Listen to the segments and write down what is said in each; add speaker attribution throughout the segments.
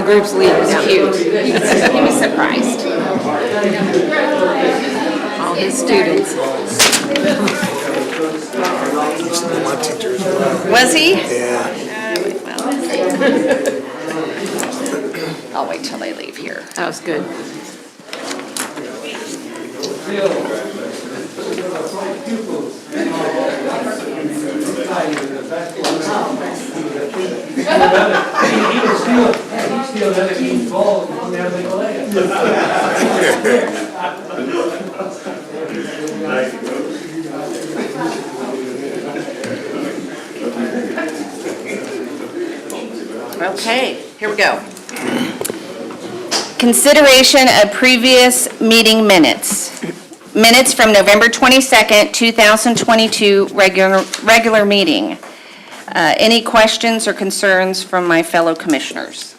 Speaker 1: The group's lead was cute. He was, he was surprised. All his students.
Speaker 2: My teacher as well.
Speaker 1: Was he?
Speaker 2: Yeah.
Speaker 1: I'll wait till they leave here. That was good.
Speaker 3: He was still, he still had a huge ball in there, they
Speaker 1: Okay, here we go.
Speaker 4: Consideration of previous meeting minutes. Minutes from November 22nd, 2022, regular, regular meeting. Uh, Any questions or concerns from my fellow commissioners?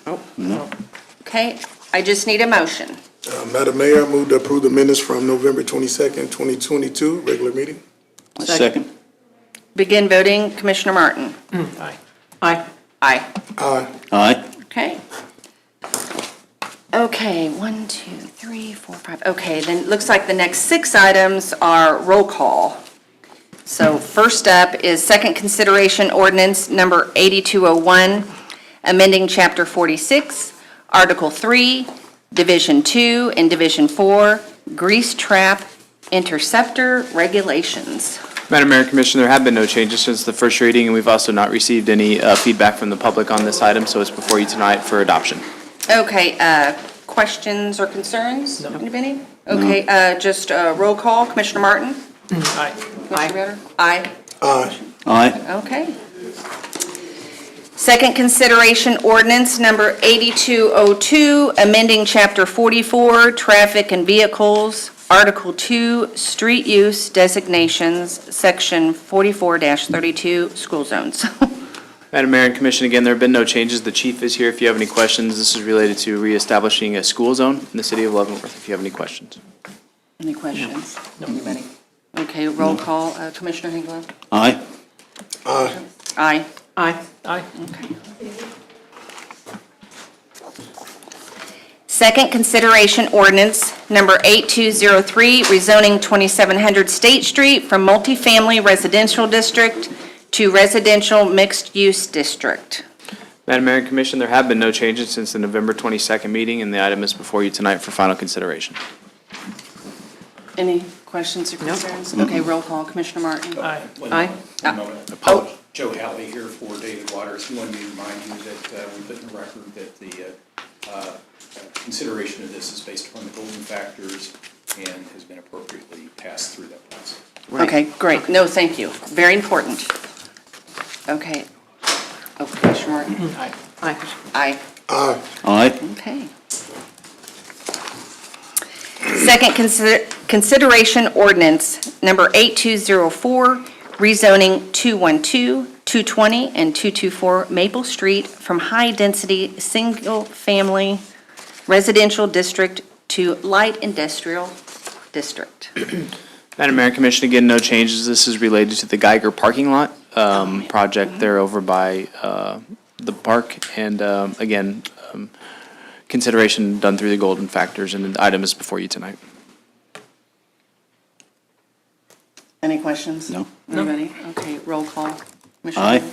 Speaker 4: Okay, I just need a motion.
Speaker 2: Uh, Madam Mayor, I move to approve the minutes from November twenty-second, twenty twenty-two, regular meeting.
Speaker 5: Second.
Speaker 4: Begin voting, Commissioner Martin. Aye. Aye. Aye.
Speaker 2: Aye.
Speaker 5: Aye.
Speaker 4: Okay. Okay, one, two, three, four, five. Okay, then it looks like the next six items are roll call. So first up is second consideration ordinance number 8201, amending Chapter 46, Article 3, Division 2 and Division 4, grease trap interceptor regulations.
Speaker 6: Madam Mayor, Commissioner, there have been no changes since the first reading, and we've also not received any uh, feedback from the public on this item, so it's before you tonight for adoption.
Speaker 4: Okay, uh, questions or concerns? Anybody? Okay, uh, just uh, roll call. Commissioner Martin? Commissioner Ritter? Aye.
Speaker 2: Aye.
Speaker 5: Aye.
Speaker 4: Okay. Second consideration ordinance number 8202, amending Chapter 44, Traffic and Vehicles, Article 2, Street Use Designations, Section 44-32, School Zones.
Speaker 6: Madam Mayor and Commission, again, there have been no changes. The chief is here if you have any questions. This is related to reestablishing a school zone in the city of Leavenworth, if you have any questions.
Speaker 4: Any questions? Anybody? Okay, roll call. Uh, Commissioner Hengler?
Speaker 5: Aye.
Speaker 2: Aye.
Speaker 4: Aye.
Speaker 1: Aye.
Speaker 4: Second consideration ordinance number 8203, rezoning 2700 State Street from multifamily residential district to residential mixed-use district.
Speaker 6: Madam Mayor and Commission, there have been no changes since the November 22nd meeting, and the item is before you tonight for final consideration.
Speaker 4: Any questions or concerns? Okay, roll call. Commissioner Martin? Aye.
Speaker 7: One
Speaker 4: Aye.
Speaker 7: one moment.
Speaker 4: Oh.
Speaker 7: Joe Howley here for David Waters. He wanted me to remind you that uh, we put in the record that the uh, uh, consideration of this is based upon the golden factors and has been appropriately passed through that process.
Speaker 4: Okay, great. No, thank you. Very important. Okay. Oh, Commissioner Martin? Aye. Aye. Aye.
Speaker 2: Aye.
Speaker 5: Aye.
Speaker 4: Okay. Second consider- consideration ordinance number 8204, rezoning 212, 220, and 224 Maple Street from high-density, single-family residential district to light industrial district.
Speaker 6: Madam Mayor and Commission, again, no changes. This is related to the Geiger parking lot um, project there over by uh, the park. And um, again, um, consideration done through the golden factors, and the item is before you tonight.
Speaker 4: Any questions?
Speaker 5: No.
Speaker 4: Anybody? Okay, roll call. Commissioner
Speaker 5: Aye.
Speaker 4: Rea?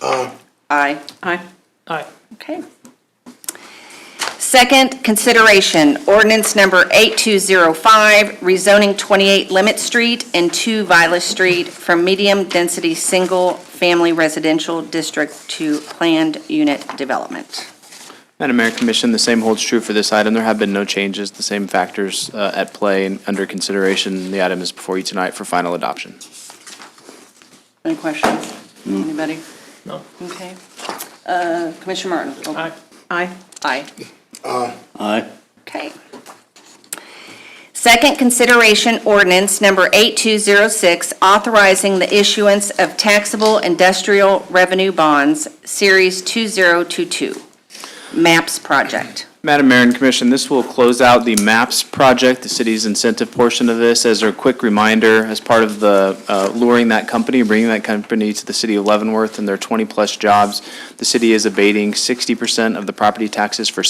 Speaker 2: Aye.
Speaker 4: Aye. Aye. Aye. Okay. Second consideration, ordinance number 8205, rezoning 28 Limit Street and 2 Viola Street from medium-density, single-family residential district to planned unit development.
Speaker 6: Madam Mayor and Commission, the same holds true for this item. There have been no changes, the same factors uh, at play and under consideration. The item is before you tonight for final adoption.
Speaker 4: Any questions? Anybody? No. Okay. Uh, Commissioner Martin? Aye. Aye. Aye.
Speaker 5: Aye.
Speaker 4: Okay. Second consideration ordinance number 8206, authorizing the issuance of taxable industrial revenue bonds, Series 2022, MAPS project.
Speaker 6: Madam Mayor and Commission, this will close out the MAPS project, the city's incentive portion of this. As a quick reminder, as part of the uh, luring that company, bringing that company to the city of Leavenworth and their 20-plus jobs, the city is abating 60% of the property taxes for